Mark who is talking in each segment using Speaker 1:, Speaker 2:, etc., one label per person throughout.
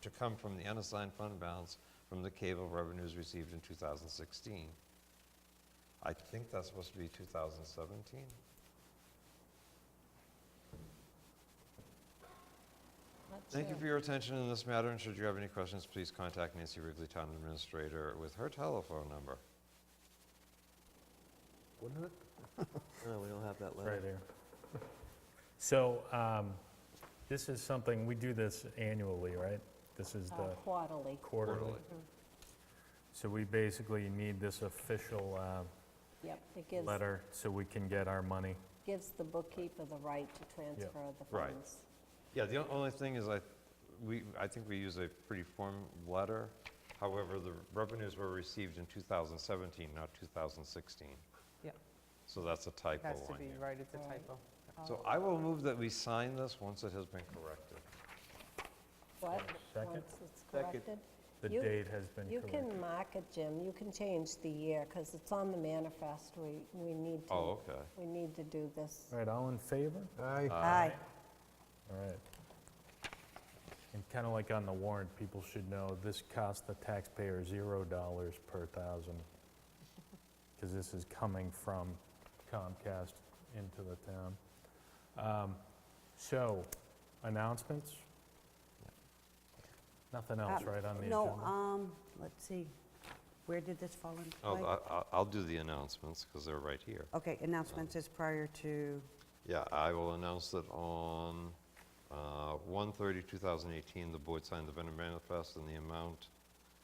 Speaker 1: to come from the unassigned fund balance from the cable revenues received in 2016. I think that's supposed to be 2017. Thank you for your attention in this matter, and should you have any questions, please contact Nancy Wrigley, Town Administrator, with her telephone number. Wouldn't it?
Speaker 2: No, we don't have that letter.
Speaker 3: Right here. So um, this is something, we do this annually, right? This is
Speaker 4: Uh,
Speaker 3: the
Speaker 4: Quarterly.
Speaker 3: quarterly.
Speaker 1: Quarterly.
Speaker 3: So we basically need this official uh,
Speaker 4: Yep, it gives,
Speaker 3: letter so we can get our money.
Speaker 4: gives the bookkeeper the right to transfer the
Speaker 1: Right.
Speaker 4: funds.
Speaker 1: Yeah, the on- only thing is I, we, I think we use a pretty form letter. However, the revenues were received in 2017, not 2016.
Speaker 5: Yep.
Speaker 1: So that's a typo
Speaker 5: Has to
Speaker 1: on
Speaker 5: be,
Speaker 1: here.
Speaker 5: right, it's a
Speaker 4: Right.
Speaker 5: typo.
Speaker 1: So I will move that we sign this once it has been corrected.
Speaker 4: What,
Speaker 3: Second.
Speaker 4: once it's
Speaker 2: Second.
Speaker 4: corrected?
Speaker 3: The
Speaker 4: You-
Speaker 3: date has been
Speaker 4: You
Speaker 3: corrected.
Speaker 4: can mark it, Jim, you can change the year, because it's on the manifest, we, we need to.
Speaker 1: Oh, okay.
Speaker 4: We need to do this.
Speaker 3: All right, all in favor?
Speaker 2: Aye.
Speaker 4: Aye.
Speaker 3: All right. And kind of like on the warrant, people should know, this cost the taxpayer $0 dollars per thousand, because this is coming from Comcast into the town. Um, So, announcements? Nothing else,
Speaker 6: Um,
Speaker 3: right, on the
Speaker 6: No,
Speaker 3: agenda?
Speaker 6: um, let's see, where did this fall into
Speaker 1: Oh,
Speaker 3: uh,
Speaker 6: play?
Speaker 1: I- I- I'll do the announcements because they're right here.
Speaker 6: Okay, announcements is prior to,
Speaker 1: Yeah, I will announce that on uh, 1/30/2018, the board signed the vendor manifest and the amount,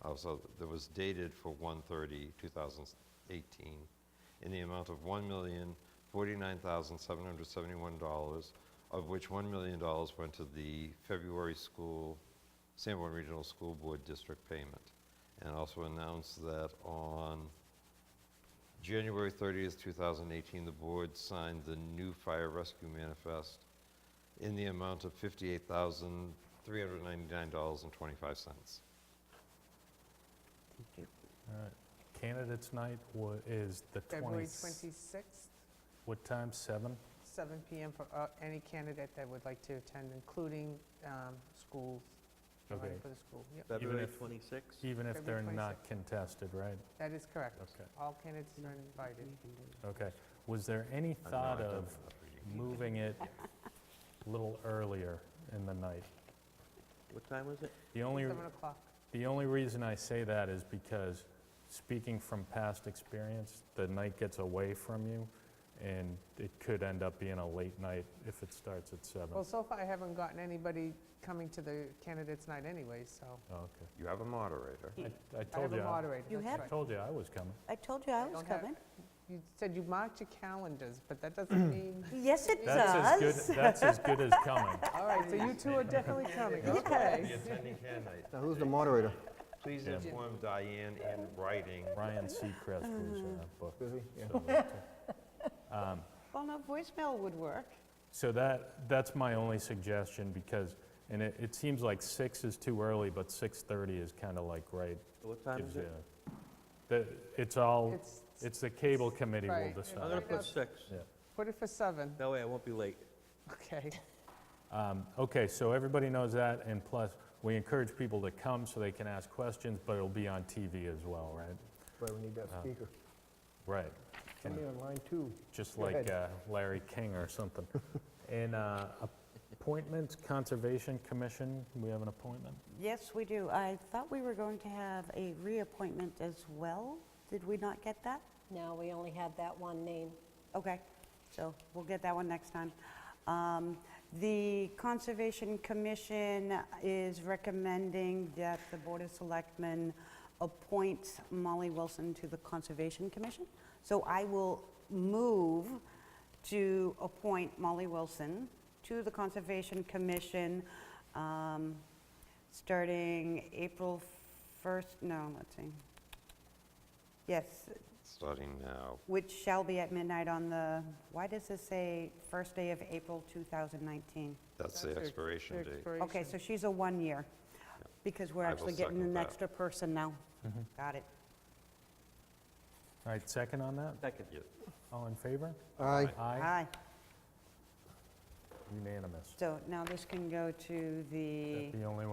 Speaker 1: uh, so that was dated for 1/30/2018, in the amount of $1,049,771, of which $1 million went to the February school, Sanborn Regional School Board District payment. And also announce that on January 30th, 2018, the board signed the new fire rescue manifest in the amount of $58,399.25.
Speaker 3: All right. Candidates night wa- is the
Speaker 5: February
Speaker 3: 20th.
Speaker 5: 26th,
Speaker 3: What time, 7?
Speaker 5: seven PM for uh, any candidate that would like to attend, including um, schools, running
Speaker 3: Okay.
Speaker 5: for the school. Yep,
Speaker 2: February
Speaker 3: if-
Speaker 2: 26th?
Speaker 3: Even if they're
Speaker 5: February Uh,
Speaker 3: not contested, right?
Speaker 5: that is correct.
Speaker 3: Okay.
Speaker 5: All candidates are invited.
Speaker 6: we can do it.
Speaker 3: Okay. Was there any
Speaker 1: Uh, no,
Speaker 3: thought
Speaker 1: I don't
Speaker 3: of
Speaker 1: have that reading.
Speaker 3: moving it a little earlier in the night.
Speaker 2: What time was it?
Speaker 3: The only,
Speaker 5: Seven o'clock.
Speaker 3: the only reason I say that is because, speaking from past experience, the night gets away from you, and it could end up being a late night if it starts at seven.
Speaker 5: Well, so far I haven't gotten anybody coming to the candidates' night anyway, so.
Speaker 3: Oh, Okay.
Speaker 1: You have a moderator.
Speaker 3: I- I
Speaker 5: I
Speaker 3: told
Speaker 5: have
Speaker 3: you,
Speaker 5: a
Speaker 3: I
Speaker 5: moderator,
Speaker 6: You
Speaker 5: that's
Speaker 6: have-
Speaker 5: right.
Speaker 3: told you I was coming.
Speaker 6: I told you I
Speaker 5: I
Speaker 6: was
Speaker 5: don't have-
Speaker 6: coming.
Speaker 5: You said you marked your calendars, but that doesn't mean,
Speaker 6: Yes, it
Speaker 3: That's as
Speaker 6: does.
Speaker 3: good, that's as good as coming.
Speaker 5: all right, so you two are definitely coming, okay.
Speaker 1: attending candidate,
Speaker 7: Now, who's the moderator?
Speaker 1: please
Speaker 3: Yeah.
Speaker 1: inform Diane in writing.
Speaker 3: Ryan Seacrest was in that book.
Speaker 7: Is he? Yeah.
Speaker 3: so uh, that's it.
Speaker 6: Well, no, voicemail would work.
Speaker 3: So that, that's my only suggestion, because, and it, it seems like six is too early, but 6:30 is kind of like right
Speaker 2: What time
Speaker 3: gives
Speaker 2: is
Speaker 3: you.
Speaker 2: it?
Speaker 3: The, it's all,
Speaker 5: It's-
Speaker 3: it's the cable committee will
Speaker 5: Right.
Speaker 2: I'm gonna
Speaker 3: decide.
Speaker 2: put six.
Speaker 5: Put it for seven,
Speaker 2: That way I won't be late.
Speaker 5: okay.
Speaker 3: Um, Okay, so everybody knows that, and plus, we encourage people to come so they can ask questions, but it'll be on TV as well, right? Uh,
Speaker 7: Right, we need that speaker.
Speaker 3: Right,
Speaker 7: Somebody on line two.
Speaker 3: just
Speaker 7: Go
Speaker 3: like
Speaker 7: ahead.
Speaker 3: uh, Larry King or something. And uh, appointments, Conservation Commission, we have an appointment?
Speaker 6: Yes, we do. I thought we were going to have a reappointment as well. Did we not get that?
Speaker 4: Now, we only had that one name.
Speaker 6: Okay, so we'll get that one next time. Um, The Conservation Commission is recommending that the Board of Selectmen appoint Molly Wilson to the Conservation Commission. So I will move to appoint Molly Wilson to the Conservation Commission, um, starting April 1st, no, let's see. Yes,
Speaker 1: Starting now.
Speaker 6: which shall be at midnight on the, why does this say first day of April 2019?
Speaker 1: That's the
Speaker 5: That's it.
Speaker 1: expiration date.
Speaker 6: Okay, so she's a one-year, because we're
Speaker 1: I will
Speaker 6: actually getting
Speaker 1: second
Speaker 6: an
Speaker 1: that.
Speaker 6: extra person now. Got it.
Speaker 3: All right, second on that?
Speaker 2: Second.
Speaker 1: Yeah.
Speaker 3: All in favor?
Speaker 7: Aye.
Speaker 3: Aye,
Speaker 6: Aye.
Speaker 3: unanimous.
Speaker 6: So now this can go to the...
Speaker 3: Is that the only